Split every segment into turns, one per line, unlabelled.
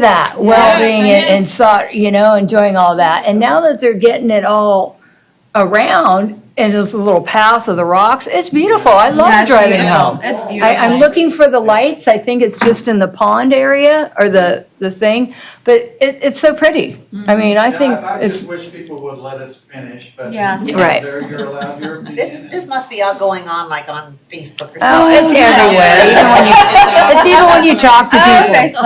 that welding
Yeah, I
and, and sot, you know, and doing all that. And now that they're getting it all around and this little path of the rocks, it's beautiful. I love
Yeah, it's
driving
beautiful.
home.
It's
I,
beautiful.
I'm looking for the lights. I think it's just in the pond area or the, the thing, but it, it's so pretty.
Mm-hmm.
I mean, I
Yeah,
think
I
it's,
just wish people would let us finish, but.
Yeah.
you know,
Right.
There, you're allowed your opinion.
This, this must be all going on like on Facebook or something.
oh, it's everywhere. Even when you, it's even when you talk to
Oh,
people.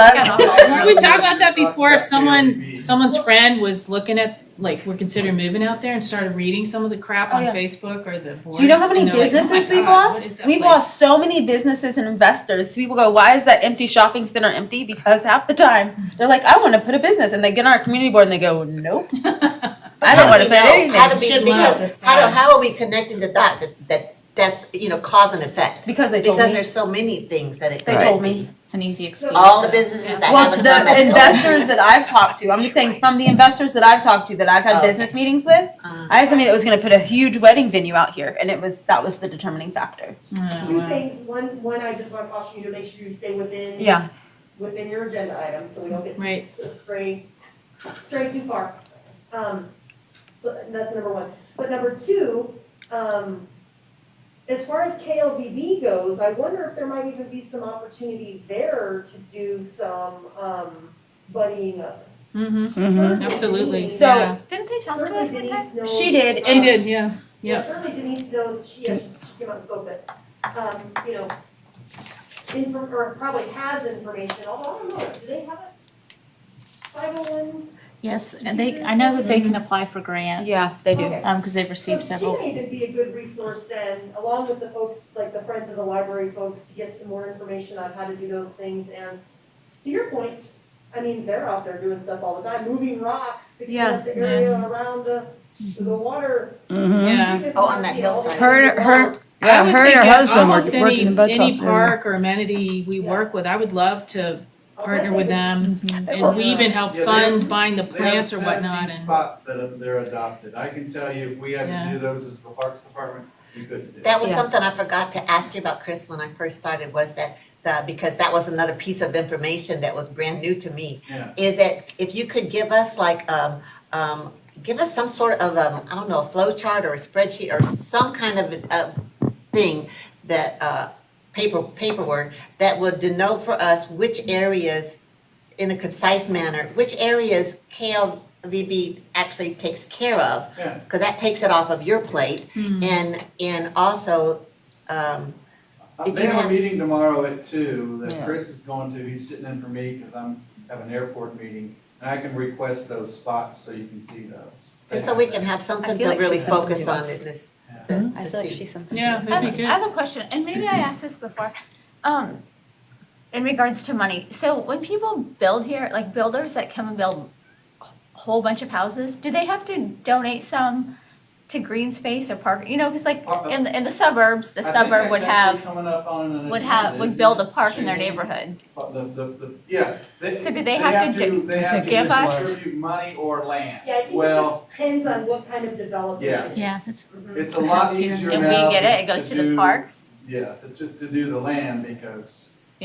Weren't we talking about that before? If
Prospect
someone,
Airbnb.
someone's friend was looking at, like, we're considering moving out there and started reading some of the crap
Oh,
on
yeah.
Facebook or the boards.
Do you know how many
and they're like, "Oh my
businesses we've
God, what is
lost?
that
We've
place?"
lost so many businesses and investors. People go, why is that empty shopping center empty? Because half the time they're like, I want to put a business, and they get on our community board and they go, nope, I don't want to put
How do
anything
be-
we,
Should love,
because,
that's
how
sad.
do, how are we connecting the dot that, that, that's, you know, cause and effect?
because they told
Because
me.
there's so many things that it
They
could
told
be.
me.
It's an easy excuse.
All the businesses that
Well,
haven't done that.
the investors that I've talked to, I'm just saying from the investors that I've talked to that I've had
Oh, Okay.
business meetings with,
Uh,
I had somebody that was going to put a huge wedding venue out here, and it was that was the determining factor.
Oh,
Two
wow.
things, one, one, I just want to caution you to make sure you stay within.
Yeah.
Within your agenda item, so we don't get
Right.
to stray, stray too far. Um, so that's number one. But number two, um, as far as KLVB goes, I wonder if there might even be some opportunity there to do some, um, buddying up.
Mhm.
Mm-hmm.
Mhm.
Absolutely.
Certainly
So-
Denise-
didn't they
certainly Denise knows-
She did,
She did, yeah,
Yeah,
yeah.
certainly Denise knows, she, yeah, she she came out and spoke, but, um, you know, inform, or probably has information, although I don't know, do they have it? Five oh one?
Yes, and they, I know that they can apply for grants.
Yeah, they do.
Okay.
Um, because they've
So
received
she
several.
may even be a good resource then, along with the folks, like the Friends of the Library folks, to get some more information on how to do those things, and to your point, I mean, they're out there doing stuff all the time, moving rocks, fixing
Yeah.
up the area around the, the water.
Mhm.
Yeah.
Treatment
Oh, on that
plant, all the
hillside.
Her, her,
I
yeah,
would
her and
think
her
at
husband were
almost
working in
any-
both of
Any park or amenity we
Yeah.
work with, I would love to
I'll
partner
bet
with
they-
them.
Mm-hmm.
And we even help
Yeah, they-
fund buying the
They have
plants or whatnot
17
and.
Spots that are- they're adopted. I can tell you, if we had to do those as the Parks Department, we couldn't do it.
That was something I forgot to ask you about, Chris, when I first started, was that, the, because that was another piece of information that was brand new to me.
Yeah.
Is that if you could give us like, um, um, give us some sort of, um, I don't know, a flow chart or a spreadsheet or some kind of, uh, thing that, uh, paper, paperwork that would denote for us which areas, in a concise manner, which areas KLVB actually takes care of.
Yeah.
Because that takes it off of your plate.
Hmm.
And, and also, um,
Uh,
If
They
you
have a
have-
meeting tomorrow at two that
Yeah.
Chris is going to, he's sitting in for me because I'm, have an airport meeting. And I can request those spots so you can see those. They
just so we
have
can
that.
have something
I
to
feel like
really
she's something
focus
to
on
us. Hmm?
in this,
Yeah.
to
I
to
feel like
see.
she's something.
Yeah,
to
that'd
us.
be
I
good.
have a question, and maybe I asked this before, um, in regards to money. So when people build here, like builders that come and build a whole bunch of houses, do they have to donate some to green space or park? You know, because like
Uh, uh,
in, the- in the suburbs,
I
the
think
suburb
that's
would
actually
have,
coming up on an
would
agenda,
have,
isn't
would build a
it?
park in their
Shooting.
neighborhood.
Uh, The, the, the, yeah.
So do they have to do-
They have to
give us-
distribute money or land.
Yeah, I think
Well,
it depends on what kind of development
Yeah.
it is.
Yeah, that's-
Mhm.
it's a lot easier now.
And we get it, it
to-
goes to the
do-
parks,
Yeah, to, to do the land because,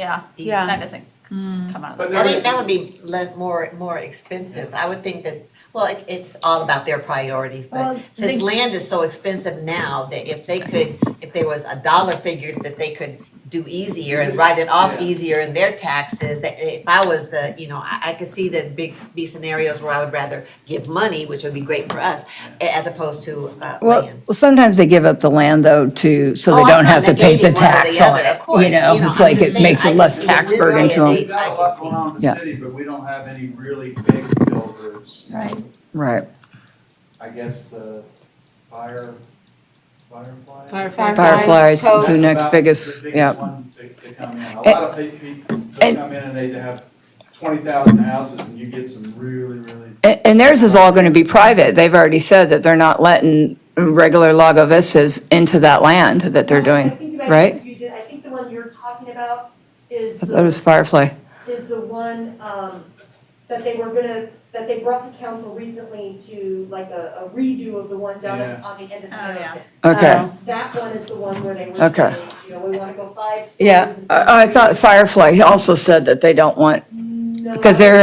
yeah,
Yeah.
that doesn't come out of the.
but
I
there
mean,
is,
that would be le- more, more expensive. I would think that, well, it- it's all about their priorities, but
Well,
since
they-
land is so expensive now, that if they could, if there was a dollar figure that they could do easier and write it off
Yeah.
easier in their taxes, that if I was the, you know, I, I could see that big, be scenarios where I would rather give money, which would be great for us, a- as opposed to, uh,
Well,
land.
well, sometimes they give up the land though to, so
Oh,
they
I'm
don't
not
have to pay
negating
the
one or the
tax on
other,
it.
of course.
You know,
You know,
it's
I'm
like
just
it makes it
saying, I
less
just-
tax
this
burden to
way they-
them.
we've got a lot going on in
Yeah.
the city, but we don't have any really big builders.
Right.
Right.
I guess the fire, firefly?
Firefly.
Fireflies
Fireflies,
is the
That's
next
about
biggest,
the biggest
yeah.
one to- to come in. A
And-
lot of pe- people
and-
come in and they have twenty thousand houses and you get some really, really.
And and theirs is all going to be private. They've already said that they're not letting regular Lago Vistas into that land that they're
I
doing.
think you might be
right?
confusing. I think the one you're talking about is,
I thought it was Firefly.
is the one, um, that they were gonna, that they brought to council recently to like a a redo of the one down
Yeah.
on the end of the.
Oh, yeah.
Okay,
Oh.
That one is the one where they were
Okay.
saying, you know, we wanna go five. stories
yeah.
instead of
I I
three.
thought Firefly also said that they don't want,
No.
because they're